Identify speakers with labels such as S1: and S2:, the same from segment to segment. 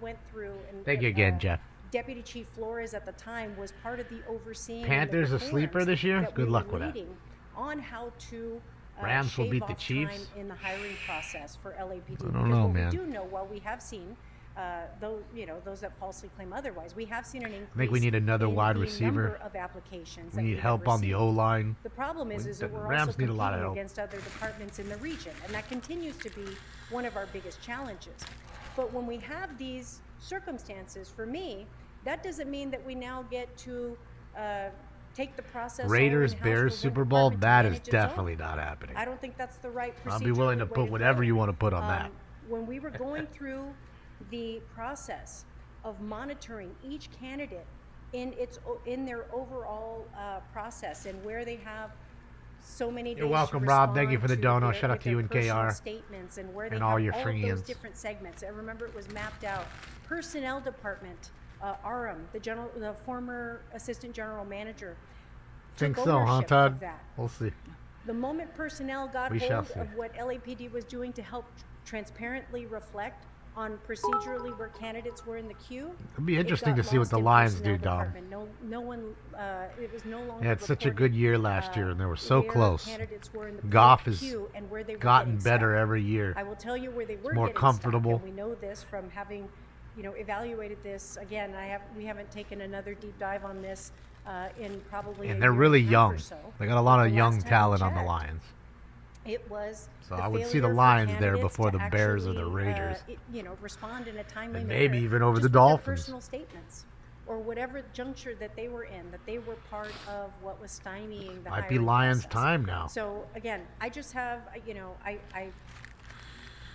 S1: went through and.
S2: Thank you again,
S1: uh,
S2: Jeff.
S1: Deputy Chief Flores at the time was part of the overseeing. and the
S2: Panthers a sleeper
S1: reforms
S2: this year?
S1: that
S2: Good
S1: we
S2: luck
S1: were
S2: with that.
S1: leading On how to. uh,
S2: Rams will
S1: shave
S2: beat the
S1: off
S2: Chiefs?
S1: time In the hiring process for LAPD.
S2: I don't
S1: Because
S2: know,
S1: what
S2: man.
S1: We do know, while we have seen, uh, those, you know, those that falsely claim otherwise, we have seen an increase.
S2: we need another
S1: in
S2: wide
S1: the
S2: receiver.
S1: number Of applications.
S2: We
S1: that
S2: need
S1: have
S2: help on the
S1: received.
S2: O line.
S1: The problem is,
S2: We-
S1: is that
S2: Mm-hmm. the
S1: we're
S2: Rams
S1: also
S2: need a
S1: competing
S2: lot of help.
S1: against other departments in the region, and that continues to be one of our biggest challenges. But when we have these circumstances, for me, that doesn't mean that we now get to uh, take the process. all
S2: Raiders,
S1: in-house
S2: Bears,
S1: for one
S2: Super Bowl.
S1: department to
S2: That
S1: manage
S2: is
S1: its own.
S2: definitely not happening.
S1: I don't think that's the right procedure.
S2: I'll be willing to
S1: or way
S2: put whatever
S1: go.
S2: you wanna put on
S1: Um,
S2: that.
S1: When we were going through the process of monitoring each candidate in its, o- in their overall uh, process and where they have so many days
S2: You're
S1: to
S2: welcome, Rob. Thank you
S1: respond
S2: for the
S1: to
S2: dono.
S1: their-
S2: Shout out
S1: with
S2: to you
S1: their
S2: and
S1: personal
S2: KR
S1: Statements and where they
S2: and
S1: have
S2: all your
S1: all of those
S2: friends.
S1: different segments. I remember it was mapped out. Personnel Department, uh, Aram, the general, the former Assistant General Manager.
S2: Think
S1: took
S2: so, huh,
S1: ownership of
S2: Todd?
S1: that.
S2: We'll see.
S1: The moment personnel got
S2: We shall
S1: hold
S2: see.
S1: of what LAPD was doing to help transparently reflect on procedurally where candidates were in the queue.
S2: It'll be
S1: it
S2: interesting
S1: got
S2: to see what
S1: lost
S2: the
S1: in
S2: Lions
S1: personnel
S2: do, Dom.
S1: department. No, no one, uh, it was no longer.
S2: They had such a
S1: reported, uh,
S2: good year last year, and they were so
S1: where
S2: close.
S1: Candidates were in the
S2: Goff
S1: queue
S2: has
S1: and where they were
S2: Gotten
S1: getting
S2: better
S1: stuck.
S2: every year.
S1: I will tell you where they were
S2: more
S1: getting stuck,
S2: comfortable.
S1: and we know this from having, you know, evaluated this again. I have we haven't taken another deep dive on this uh, in probably. a
S2: And they're
S1: year
S2: really
S1: a half
S2: young.
S1: Or so.
S2: They got a lot
S1: But
S2: of
S1: the
S2: young
S1: last time I
S2: talent on the
S1: checked,
S2: Lions.
S1: It was.
S2: So
S1: the
S2: I would see the
S1: failure for
S2: Lions there
S1: candidates
S2: before
S1: to
S2: the Bears or the
S1: actually,
S2: Raiders.
S1: Uh, it- you know, respond in a timely
S2: And
S1: manner
S2: maybe even over
S1: just
S2: the
S1: with
S2: Dolphins.
S1: Their personal statements. Or whatever juncture that they were in, that they were part of what was stymieing the
S2: Might be
S1: hiring
S2: Lions'
S1: process.
S2: time now.
S1: So again, I just have, I- you know, I, I,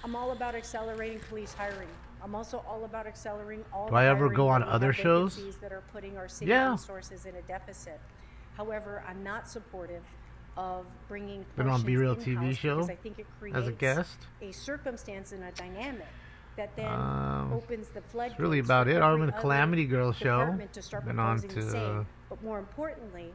S1: I'm all about accelerating police hiring. I'm also all about accelerating all.
S2: Do
S1: the
S2: I ever
S1: hiring
S2: go
S1: where
S2: on
S1: we have
S2: other shows?
S1: vacancies That are putting our city
S2: Yeah.
S1: resources in a deficit. However, I'm not supportive of bringing.
S2: Been on
S1: portions
S2: B-Real TV
S1: in-house
S2: show
S1: because I think it creates
S2: as a guest.
S1: a circumstance and a dynamic that then
S2: Um,
S1: opens the floodgates.
S2: That's really about
S1: for
S2: it. Arm
S1: every
S2: and
S1: other
S2: Calamity Girl show.
S1: department to start
S2: Been on
S1: proposing the
S2: to
S1: same. But more importantly,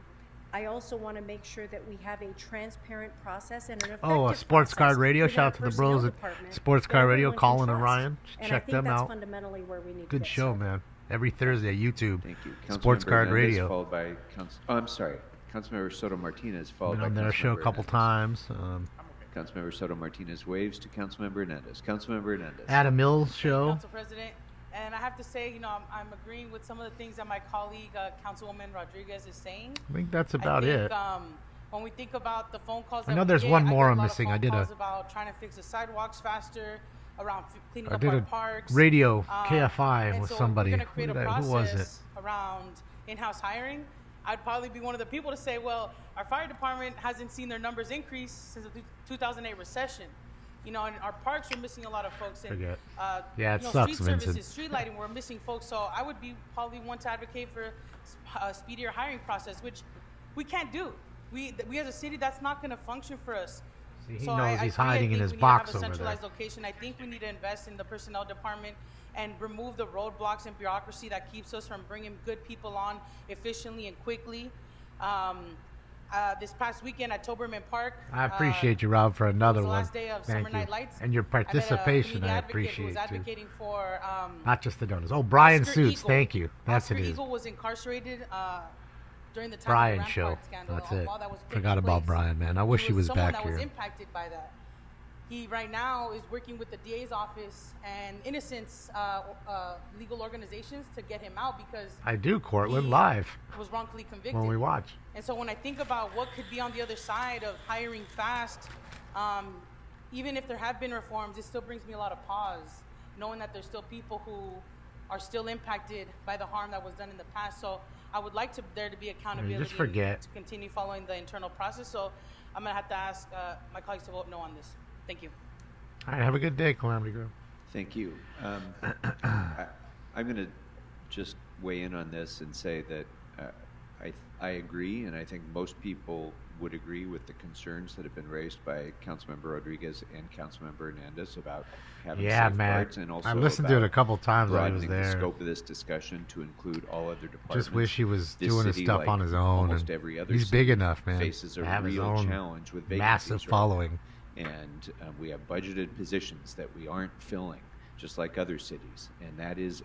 S1: I also want to make sure that we have a transparent process and an effective
S2: Oh, uh, Sports Card
S1: process
S2: Radio.
S1: within
S2: Shout
S1: our
S2: out to the
S1: personnel
S2: bros at
S1: department
S2: Sports
S1: that
S2: Card Radio,
S1: everyone can
S2: Colin and
S1: trust.
S2: Ryan.
S1: And
S2: Check
S1: I think
S2: them
S1: that's
S2: out.
S1: fundamentally where we need to
S2: Good
S1: get
S2: show,
S1: started.
S2: man. Every Thursday, YouTube.
S3: Thank you.
S2: Sports
S3: Councilmember
S2: Card
S3: Hernandez,
S2: Radio.
S3: Followed by Council, oh, I'm sorry, Councilmember Soto Martinez, followed
S2: Been
S3: by
S2: on their
S3: Councilmember
S2: show a couple
S3: Hernandez.
S2: times. Um,
S3: Councilmember Soto Martinez waves to Councilmember Hernandez. Councilmember Hernandez.
S2: Adam Mills show.
S4: Council President. And I have to say, you know, I'm, I'm agreeing with some of the things that my colleague, uh, Councilwoman Rodriguez, is saying.
S2: I think that's
S4: I
S2: about
S4: think,
S2: it.
S4: Um, when we think about the phone calls,
S2: I
S4: that
S2: know
S4: we
S2: there's
S4: get,
S2: one
S4: I
S2: more
S4: get a
S2: I'm
S4: lot of
S2: missing.
S4: phone
S2: I did a-
S4: calls about trying to fix the sidewalks faster, around f- cleaning
S2: I
S4: up
S2: did
S4: our
S2: a
S4: parks.
S2: radio
S4: Um,
S2: KFI
S4: and
S2: with
S4: so if we're
S2: somebody.
S4: gonna
S2: Who
S4: create a
S2: did I- who was
S4: process Around in-house hiring, I'd probably be one of the people to say, well, our fire department hasn't seen their numbers increase since the 2008 recession. You know, and our parks are missing a lot of folks. And,
S2: Forget.
S4: Uh,
S2: Yeah, it
S4: you know,
S2: sucks,
S4: street
S2: Vincent.
S4: services, street lighting, we're missing folks. So I would be probably one to advocate for a speedier hiring process, which we can't do. We, th- we as a city, that's not going to function for us.
S2: See, he
S4: so
S2: knows
S4: I, I
S2: he's
S4: agree. I
S2: hiding in
S4: think
S2: his
S4: we
S2: box
S4: need to
S2: over
S4: have
S2: there.
S4: a centralized location. I think we need to invest in the personnel department and remove the roadblocks and bureaucracy that keeps us from bringing good people on efficiently and quickly. Um, uh, this past weekend at Toberman Park,
S2: I
S4: uh,
S2: appreciate you, Rob, for another
S4: was the
S2: one.
S4: last day of Summer
S2: Thank you.
S4: Night Lights.
S2: And your
S4: I met a
S2: participation,
S4: community
S2: I
S4: advocate who
S2: appreciate
S4: was
S2: too.
S4: advocating for um,
S2: Not just the donors. Oh, Brian
S4: Oscar
S2: Suits.
S4: Eagle.
S2: Thank you. That's
S4: Oscar
S2: it is.
S4: Eagle was incarcerated uh, during the time
S2: Brian
S4: of the
S2: show.
S4: Rampart scandal.
S2: That's
S4: all
S2: it.
S4: while that was taking
S2: Forgot about
S4: place.
S2: Brian, man. I wish he was
S4: someone
S2: back
S4: that
S2: here.
S4: was impacted by that. He right now is working with the DA's office and Innocence uh, uh, legal organizations to get him out because
S2: I do, Cortland,
S4: he
S2: live
S4: was wrongfully convicted.
S2: when we watch.
S4: And so when I think about what could be on the other side of hiring fast, um, even if there have been reforms, it still brings me a lot of pause, knowing that there's still people who are still impacted by the harm that was done in the past. So I would like to there to be accountability and
S2: forget.
S4: to continue following the internal process. So I'm gonna have to ask uh, my colleagues to vote no on this. Thank you.
S2: All right, have a good day, Calamity Girl.
S3: Thank you. Um, I, I'm going to just weigh in on this and say that uh, I, I agree, and I think most people would agree with the concerns that have been raised by Councilmember Rodriguez and Councilmember Hernandez about having
S2: Yeah, man.
S3: safeguards and also
S2: I listened to it
S3: about
S2: a couple times while he was
S3: broadening
S2: there.
S3: the scope of this discussion to include all other departments.
S2: wish he was
S3: This
S2: doing his
S3: city,
S2: stuff
S3: like
S2: on his own,
S3: Almost
S2: and
S3: every other
S2: he's
S3: city
S2: big enough, man,
S3: Faces a
S2: to have his
S3: real
S2: own
S3: challenge with
S2: massive
S3: vacancies right uh, now
S2: following.
S3: and um, we have budgeted positions that we aren't filling. just like other cities. And that is